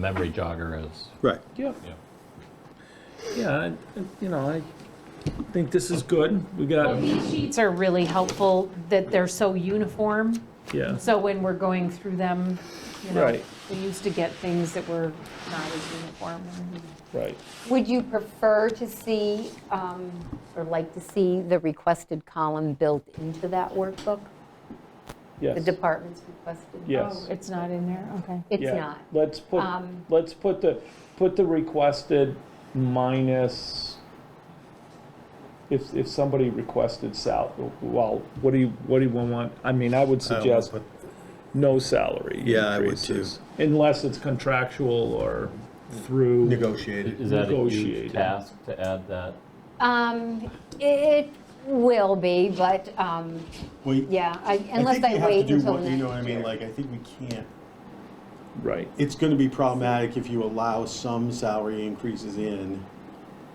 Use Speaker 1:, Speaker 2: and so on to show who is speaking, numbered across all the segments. Speaker 1: memory jogger is.
Speaker 2: Right.
Speaker 3: Yep. Yeah, I- I- you know, I think this is good. We got,
Speaker 4: These sheets are really helpful that they're so uniform,
Speaker 3: yeah,
Speaker 4: so when we're going through them, you know,
Speaker 3: Right.
Speaker 4: we used to get things that were not as uniform.
Speaker 3: right.
Speaker 5: Would you prefer to see, um, or like to see the requested column built into that workbook? The
Speaker 3: Yes.
Speaker 5: department's requested? Oh,
Speaker 3: Yes.
Speaker 4: It's not in there, okay.
Speaker 5: It's
Speaker 3: Yeah.
Speaker 5: not.
Speaker 3: Let's put,
Speaker 5: Um,
Speaker 3: let's put the, put the requested minus, if, if somebody requested sal, well, what do you, what do you want? I mean, I would
Speaker 6: Um,
Speaker 3: suggest no salary
Speaker 2: Yeah, I would too.
Speaker 3: increases. Unless it's contractual or through,
Speaker 2: Negotiated.
Speaker 1: Is that a huge
Speaker 3: Negotiated.
Speaker 1: task to add that?
Speaker 5: Um, It will be, but, um, yeah, I- unless I wait until next year.
Speaker 6: You know what I mean, like, I think we can't,
Speaker 3: right,
Speaker 6: it's gonna be problematic if you allow some salary increases in.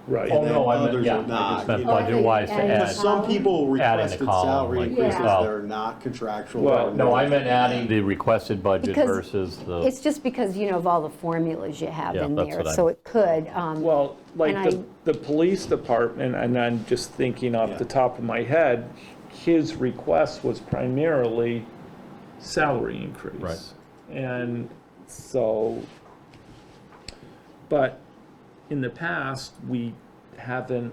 Speaker 1: Oh,
Speaker 3: right.
Speaker 6: then
Speaker 1: no, I meant,
Speaker 6: others
Speaker 1: yeah,
Speaker 6: are
Speaker 1: I just
Speaker 6: not,
Speaker 1: meant
Speaker 6: you know.
Speaker 1: budget-wise to
Speaker 5: And-
Speaker 1: add.
Speaker 6: Some people
Speaker 1: Add in the
Speaker 6: requested
Speaker 1: column,
Speaker 6: salary
Speaker 1: like,
Speaker 6: increases
Speaker 5: well-
Speaker 6: that are not contractual.
Speaker 3: Well,
Speaker 1: No, I meant adding the requested budget
Speaker 5: Because
Speaker 1: versus the,
Speaker 5: It's just because, you know, of all the formulas you have
Speaker 1: Uh, Yeah,
Speaker 5: in
Speaker 1: that's
Speaker 5: there.
Speaker 1: what I-
Speaker 5: So it could. um,
Speaker 3: Well, like
Speaker 5: And
Speaker 3: the, the police department, and I'm just thinking off the
Speaker 6: Yeah.
Speaker 3: top of my head, his request was primarily salary increase.
Speaker 1: Right.
Speaker 3: And so, but in the past, we haven't,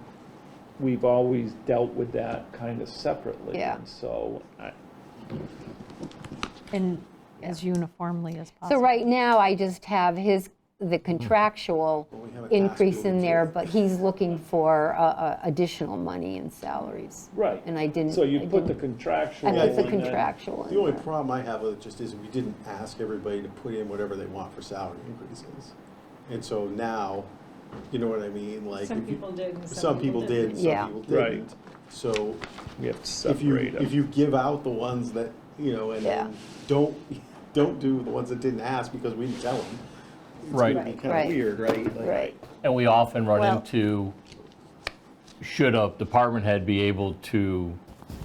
Speaker 3: we've always dealt with that kind of separately.
Speaker 5: Yeah.
Speaker 3: And So, I-
Speaker 4: And as uniformly as
Speaker 5: So
Speaker 4: possible.
Speaker 5: right now, I just have his, the contractual
Speaker 6: we have a task
Speaker 5: increase in
Speaker 6: bill,
Speaker 5: there,
Speaker 6: too.
Speaker 5: but he's looking for uh, uh, additional money in salaries.
Speaker 3: right.
Speaker 5: And I didn't.
Speaker 3: So
Speaker 5: I
Speaker 3: you put the
Speaker 5: didn't-
Speaker 3: contractual.
Speaker 5: I put the
Speaker 3: in there.
Speaker 5: contractual
Speaker 6: The only
Speaker 5: in there.
Speaker 6: problem I have with it just is we didn't ask everybody to put in whatever they want for salary increases. And so now, you know what I mean, like. Some people did some people did, and
Speaker 5: Yeah.
Speaker 6: some people
Speaker 3: Right.
Speaker 6: didn't. So
Speaker 3: We have to
Speaker 6: if you,
Speaker 3: separate 'em.
Speaker 6: if you give out the ones that, you know, and
Speaker 5: Yeah.
Speaker 6: then don't, don't do the ones that didn't ask because we didn't tell them.
Speaker 1: right.
Speaker 6: Kind
Speaker 5: Right.
Speaker 6: of weird, right? Like-
Speaker 5: Right.
Speaker 1: And we often run
Speaker 5: Well-
Speaker 1: into, should a department head be able to,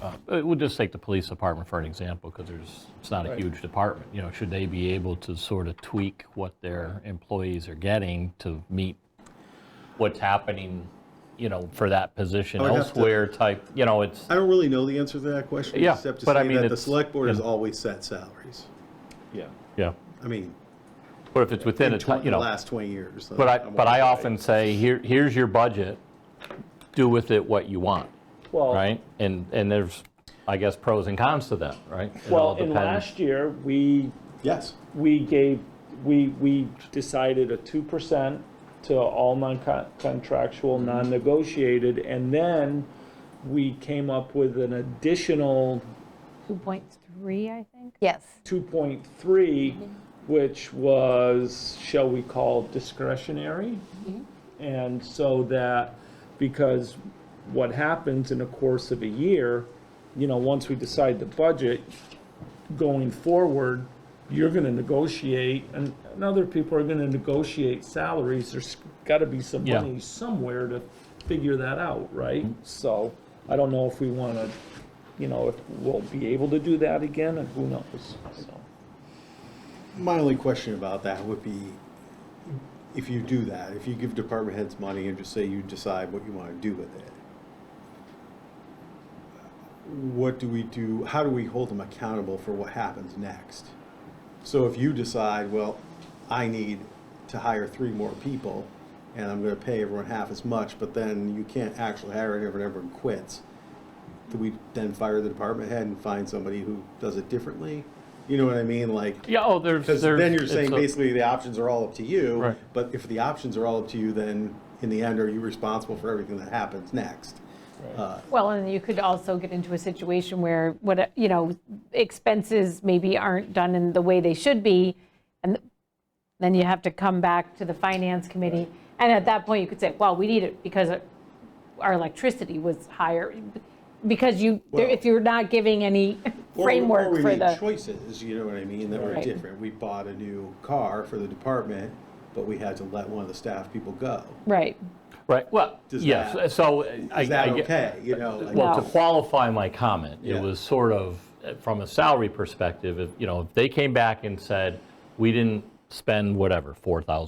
Speaker 1: uh, uh, we'll just take the police department for an example, because there's, it's not a huge department, you know, should they be able to sort of tweak what their employees are getting to meet what's happening, you know, for that position
Speaker 6: I would have to-
Speaker 1: elsewhere type, you know, it's.
Speaker 6: I don't really know the answer to that question,
Speaker 1: Yeah,
Speaker 6: except to
Speaker 1: but I
Speaker 6: say
Speaker 1: mean,
Speaker 6: that the
Speaker 1: it's-
Speaker 6: select board has
Speaker 1: yeah.
Speaker 6: always set salaries.
Speaker 3: Yeah.
Speaker 1: Yeah.
Speaker 6: I mean,
Speaker 1: But if it's within a,
Speaker 6: in
Speaker 1: ti-
Speaker 6: 20
Speaker 1: you
Speaker 6: the
Speaker 1: know,
Speaker 6: last 20 years. so
Speaker 1: but I,
Speaker 6: I'm
Speaker 1: but I
Speaker 6: all-
Speaker 1: often say, here, here's your budget, do with it what you want,
Speaker 3: Well,
Speaker 1: right? And, and there's, I guess, pros and cons to that, right? It all
Speaker 3: Well, and
Speaker 1: depends.
Speaker 3: last year, we
Speaker 6: Yes,
Speaker 3: we gave, we, we decided a two percent to all non-contractual, non-negotiated, and then we came up with an additional
Speaker 4: 2.3, I think.
Speaker 5: Yes,
Speaker 3: two point three, which was, shall we call discretionary? And so that, because what happens in the course of a year, you know, once we decide the budget, going forward, you're gonna negotiate, and, and other people are gonna negotiate salaries, there's gotta be some
Speaker 1: Yeah.
Speaker 3: money somewhere to figure that out, right? So, I don't know if we wanna, you know, if we'll be able to do that again, and who knows, so.
Speaker 6: my only question about that would be, if you do that, if you give department heads money and just say you decide what you want to do with it, what do we do, how do we hold them accountable for what happens next? So if you decide, well, I need to hire three more people, and I'm gonna pay everyone half as much, but then you can't actually hire anyone, everyone quits, do we then fire the department head and find somebody who does it differently? You know what I mean, like,
Speaker 1: Yeah, oh, there's,
Speaker 6: because
Speaker 1: there's.
Speaker 6: then you're
Speaker 1: it's
Speaker 6: saying
Speaker 1: a-
Speaker 6: basically the options are all up to you.
Speaker 1: Right.
Speaker 6: But if the options are all up to you, then in the end, are you responsible for everything that happens next? Uh,
Speaker 4: Well, and you could also get into a situation where what, you know, expenses maybe aren't done in the way they should be, and then you have to come back to the finance committee. And at that point, you could say, well, we need it because our electricity was higher, because you, if you're not giving any
Speaker 6: or- or
Speaker 4: framework
Speaker 6: we
Speaker 4: for
Speaker 6: made
Speaker 4: the.
Speaker 6: Choices, you know what I mean, that were
Speaker 4: Right.
Speaker 6: different. We bought a new car for the department, but we had to let one of the staff people go.
Speaker 4: Right,
Speaker 1: Right, well,
Speaker 6: Does
Speaker 1: yes,
Speaker 6: that-
Speaker 1: so. I-
Speaker 6: Is that
Speaker 1: I get-
Speaker 6: okay, you know? like-
Speaker 1: Well, to
Speaker 4: No.
Speaker 1: qualify my comment, it
Speaker 6: Yeah.
Speaker 1: was sort of, uh, from a salary perspective, if, you know, if they came back and said, we didn't spend whatever, 4,000